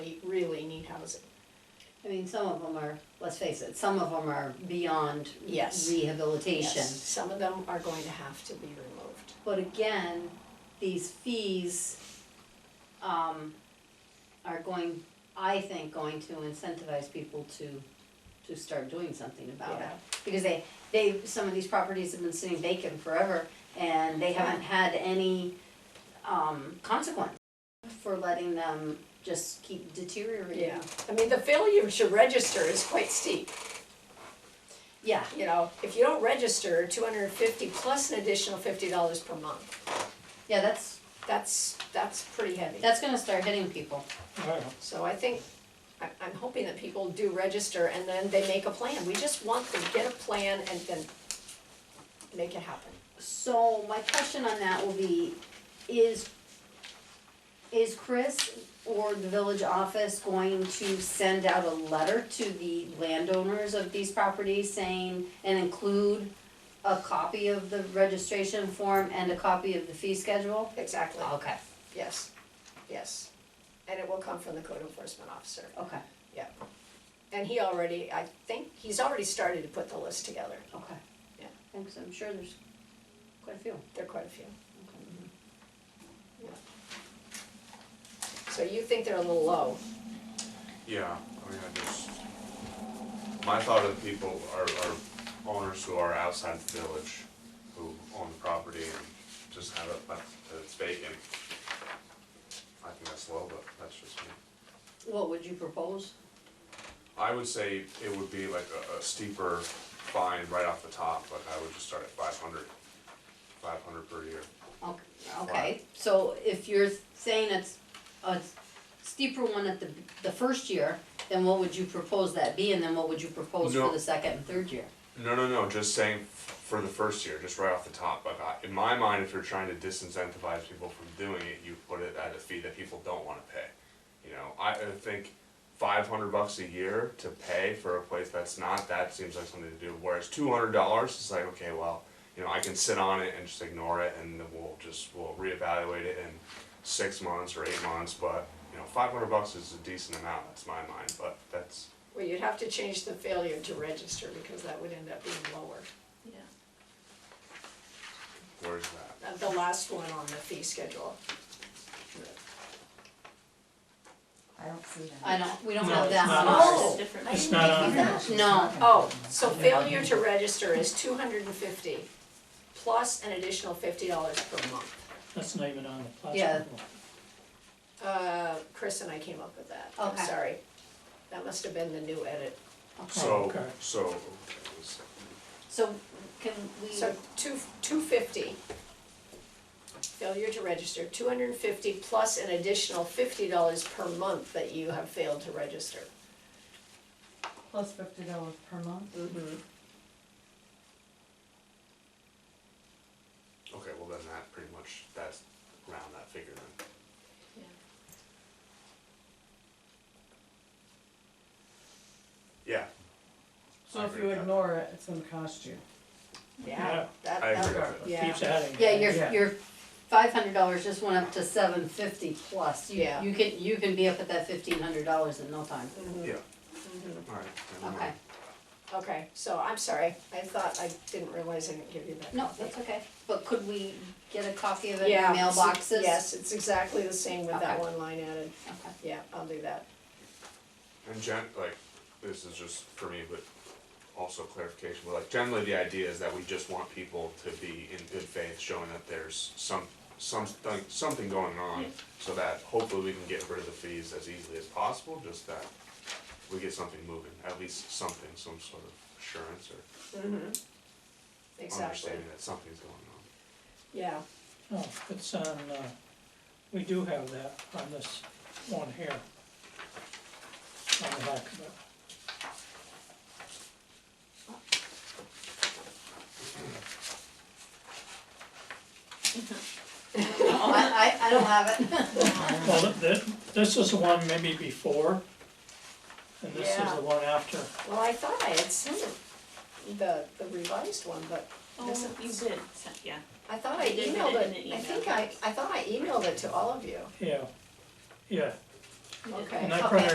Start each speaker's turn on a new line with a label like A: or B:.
A: housing.
B: I mean, some of them are, let's face it, some of them are beyond
A: Yes.
B: rehabilitation.
A: Yes, some of them are going to have to be removed.
B: But again, these fees, um, are going, I think, going to incentivize people to, to start doing something about it.
A: Yeah.
B: Because they, they, some of these properties have been sitting vacant forever and they haven't had any, um, consequence for letting them just keep deteriorating.
A: Yeah, I mean, the failure to register is quite steep.
B: Yeah,
A: You know, if you don't register, two hundred and fifty plus an additional fifty dollars per month,
B: yeah, that's,
A: that's, that's pretty heavy.
B: that's gonna start hitting people.
A: So I think, I, I'm hoping that people do register and then they make a plan. We just want them to get a plan and then make it happen.
B: So my question on that will be, is, is Chris or the village office going to send out a letter to the landowners of these properties saying, and include a copy of the registration form and a copy of the fee schedule?
A: Exactly,
B: Okay,
A: yes, yes. And it will come from the code enforcement officer.
B: okay,
A: And he already, I think, he's already started to put the list together.
B: okay.
A: Yeah.
B: Thanks, I'm sure there's quite a few.
A: There are quite a few. So you think they're a little low?
C: Yeah, I mean, I just, my thought of the people are, are owners who are outside the village, who own the property and just have it left, that it's vacant. I think that's low, but that's just me.
B: What would you propose?
C: I would say it would be like a, a steeper fine right off the top, like I would just start at five hundred, five hundred per year.
B: Okay, okay, so if you're saying it's a steeper one at the, the first year, then what would you propose that be, and then what would you propose for
C: No.
B: the second and third year?
C: No, no, no, just saying f- for the first year, just right off the top, like I, in my mind, if you're trying to disincentivize people from doing it, you put it at a fee that people don't wanna pay. You know, I, I think five hundred bucks a year to pay for a place that's not, that seems like something to do, whereas two hundred dollars is like, okay, well, you know, I can sit on it and just ignore it and then we'll just, we'll reevaluate it in six months or eight months, but, you know, five hundred bucks is a decent amount, that's my mind, but that's,
A: Well, you'd have to change the failure to register because that would end up being lower. Yeah.
C: where's that?
A: Uh, The last one on the fee schedule.
D: I don't see that.
B: I don't, we don't
E: No,
B: have
E: it's
B: that
E: not
B: on
A: us.
B: ours.
A: Oh.
E: It's not on there.
B: that. No.
A: Oh, so failure to register is two hundred and fifty plus an additional fifty dollars per month.
E: That's not even on the
B: Yeah.
E: plastic one.
A: Uh, Chris and I came up with that, I'm
B: Okay.
A: sorry. That must have been the new edit.
C: So,
E: okay.
C: so, okay, let's see.
B: Oh, So, can we,
A: So two, two fifty. Failure to register, two hundred and fifty plus an additional fifty dollars per month that you have failed to register.
D: Plus fifty dollars per month?
A: Mm-hmm.
C: Okay, well then that pretty much, that's around that figure then. Yeah,
D: So
C: I
D: if
C: agree
D: you
C: with that.
D: ignore it, it's gonna cost you.
A: Yeah, that,
C: I agree
A: that,
C: with that.
A: yeah,
E: Keeps adding.
B: yeah, your,
D: Yeah.
B: your five hundred dollars just went up to seven fifty plus, you,
A: Yeah.
B: you can, you can be up at that fifteen hundred dollars in no time.
A: Mhm.
C: Yeah,
A: Mhm.
C: alright, never
B: Okay,
C: mind.
A: okay, so I'm sorry, I thought, I didn't realize I didn't give you that.
B: no, that's okay, but could we get a copy of it in
A: Yeah,
B: mailboxes?
A: it's- Yes, it's exactly the same with that
B: Okay.
A: one line added,
B: Okay.
A: yeah, I'll do that.
C: And gen, like, this is just for me, but also clarification, but like generally the idea is that we just want people to be in good faith, showing that there's some, something, something going on. So that hopefully we can get rid of the fees as easily as possible, just that we get something moving, at least something, some sort of assurance or
A: Mhm. Exactly,
C: understanding that something's going on.
A: yeah,
E: No, it's on, uh, we do have that on this one here. On the back of it.
A: Oh,
B: I, I, I don't have it.
E: Well, th- th- this is the one maybe before, and this is
A: Yeah.
E: the one after.
A: well, I thought I had sent the, the revised one, but
F: Oh,
A: this is.
F: you did, so- yeah.
A: I thought
F: I
A: I
F: did put
A: emailed
F: it
A: it,
F: in the
A: I
F: email.
A: think I, I thought I emailed it to all of you,
E: Yeah, yeah.
F: you did.
A: okay.
E: And I
B: Okay.
E: printed